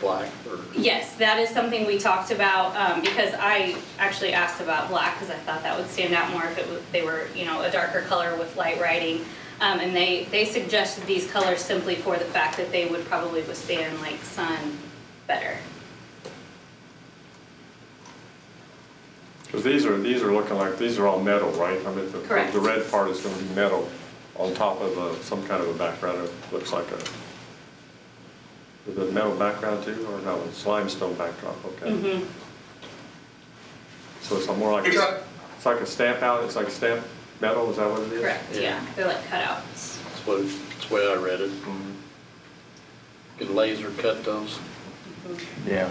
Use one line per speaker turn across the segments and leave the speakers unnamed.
black or?
Yes, that is something we talked about, um, because I actually asked about black, because I thought that would stand out more if it was, they were, you know, a darker color with light writing. Um, and they, they suggested these colors simply for the fact that they would probably withstand like sun better.
Because these are, these are looking like, these are all metal, right? I mean, the,
Correct.
the red part is gonna be metal on top of a, some kind of a background, it looks like a, is it metal background too, or no, it's limestone backdrop, okay?
Mhm.
So it's more like,
It's a-
it's like a stamp out, it's like stamp metal, is that what it is?
Correct,
Yeah.
yeah, they're like cutouts.
That's what, that's the way I read it.
Mhm.
Can laser cut those?
Yeah.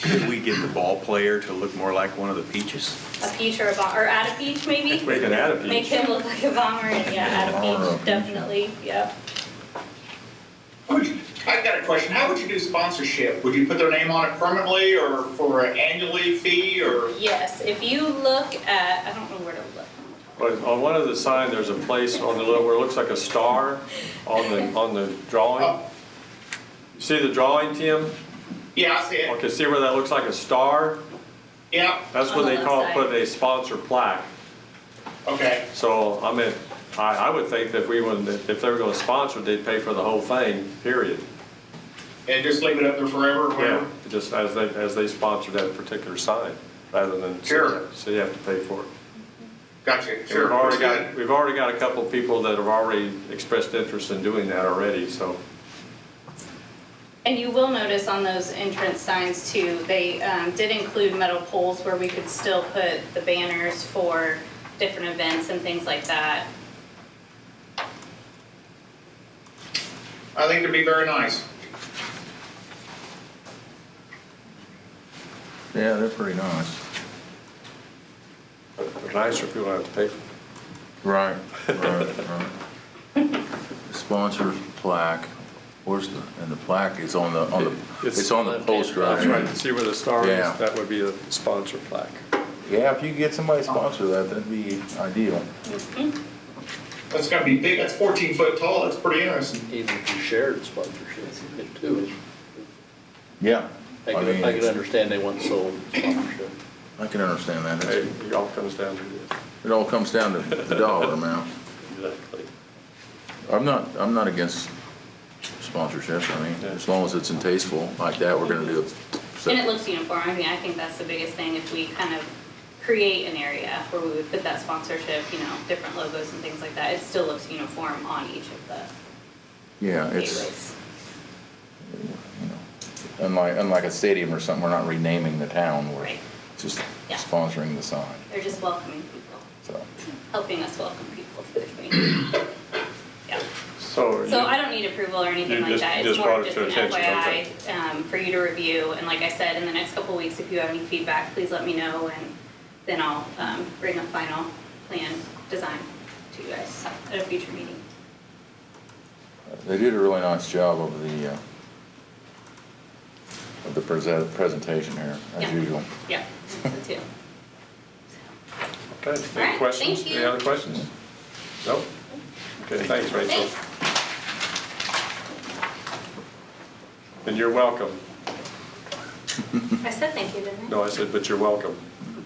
Could we get the ball player to look more like one of the peaches?
A peach or a bomber, or add a peach maybe?
We can add a
Make
peach.
him look like a bomber, and yeah, add
Bomber or a
a
peach.
peach, definitely, yep.
How would you, I've got a question. How would you do sponsorship? Would you put their name on it permanently or for an annually fee or?
Yes, if you look at, I don't know where to look.
But on one of the sign, there's a place on the, little where it looks like a star on the, on the drawing.
Oh,
You See the drawing, Tim?
Yeah, I see it.
Okay, see where that looks like a star?
Yeah,
That's
On
what
the
they
left
call,
side.
put a sponsor plaque.
okay.
So, I mean, I, I would think that we would, if they were gonna sponsor, they'd pay for the whole thing, period.
And just leave it up there forever or whatever?
Just as they, as they sponsored that particular sign, rather than.
Sure.
So you have to pay for it.
Gotcha,
And We've
sure.
already
That's
got,
good.
we've already got a couple of people that have already expressed interest in doing that already, so.
And you will notice on those entrance signs too, they um, did include metal poles where we could still put the banners for different events and things like that.
I think it'd be very nice.
Yeah, they're pretty nice.
But nicer if people don't have to pay for it.
Right, right, right. Sponsor plaque, where's the, and the plaque is on the, on the, it's on the post,
That's
right?
right, see where the star
Yeah.
is, that would be a sponsor plaque.
Yeah, if you could get somebody to sponsor that, that'd be ideal.
That's gotta be big. That's fourteen foot tall. That's pretty interesting.
Even if you shared sponsorship, it too is,
Yeah.
I
I
could, I could
mean,
understand they want sold sponsorship.
I can understand that.
Hey,
It's-
It all comes down to this.
It all comes down to the dollar amount.
Exactly.
I'm not, I'm not against sponsorships, I mean, as long as it's in tasteful like that, we're gonna do it. So-
And it looks uniform, I mean, I think that's the biggest thing, if we kind of create an area where we would put that sponsorship, you know, different logos and things like that, it still looks uniform on each of the
Yeah, it's,
gateways.
you know, unlike, unlike a stadium or something, we're not renaming the town, we're
Right.
just
Yeah.
sponsoring the sign,
They're just welcoming people,
so.
helping us welcome people to the community. Yeah.
So.
So
you-
I don't need approval or anything
You
like
just-
that.
you
It's
just
more
brought it
just
to
an
attention, okay.
FYI um, for you to review. And like I said, in the next couple of weeks, if you have any feedback, please let me know and then I'll um, bring a final plan design to you guys at a future meeting.
They did a really nice job of the, uh, of the present, presentation here,
Yeah.
as usual.
Yeah, so too.
Okay,
All right,
any questions?
thank
Any
you.
other questions? Nope? Okay, thanks, Rachel.
Thanks.
And you're welcome.
I said thank you, didn't I?
No, I said, but you're welcome,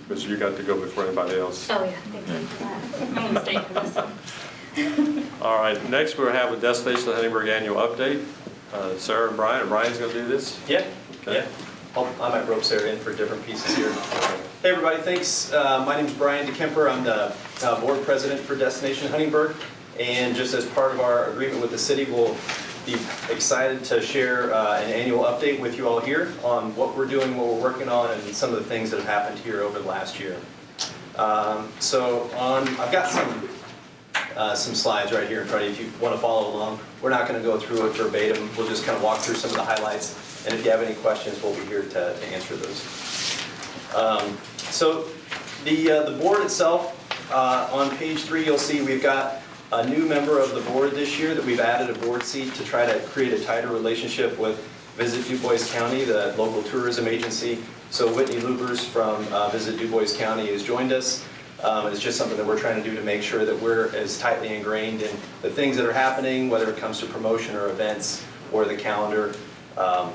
because you got to go before anybody else.
Oh, yeah, thank you for that. I'm gonna stay for this one.
All right, next we'll have a Destination Huntingburg Annual Update. Uh, Sarah and Brian, and Brian's going to do this?
Yeah,
Okay.
yeah. I'll- I might rope Sarah in for different pieces here. Hey, everybody, thanks. Uh, My name's Brian DeKemper. I'm the uh, board president for Destination Huntingburg. And just as part of our agreement with the city, we'll be excited to share uh, an annual update with you all here on what we're doing, what we're working on, and some of the things that have happened here over the last year. Um, So on, I've got some uh, some slides right here in front of you if you want to follow along. We're not going to go through it verbatim, we'll just kind of walk through some of the highlights, and if you have any questions, we'll be here to to answer those. Um, So the, uh, the board itself, uh, on page three, you'll see we've got a new member of the board this year that we've added a board seat to try to create a tighter relationship with Visit DuBois County, the local tourism agency. So Whitney Lubers from uh, Visit DuBois County has joined us. Um, It's just something that we're trying to do to make sure that we're as tightly ingrained in the things that are happening, whether it comes to promotion or events or the calendar. Um,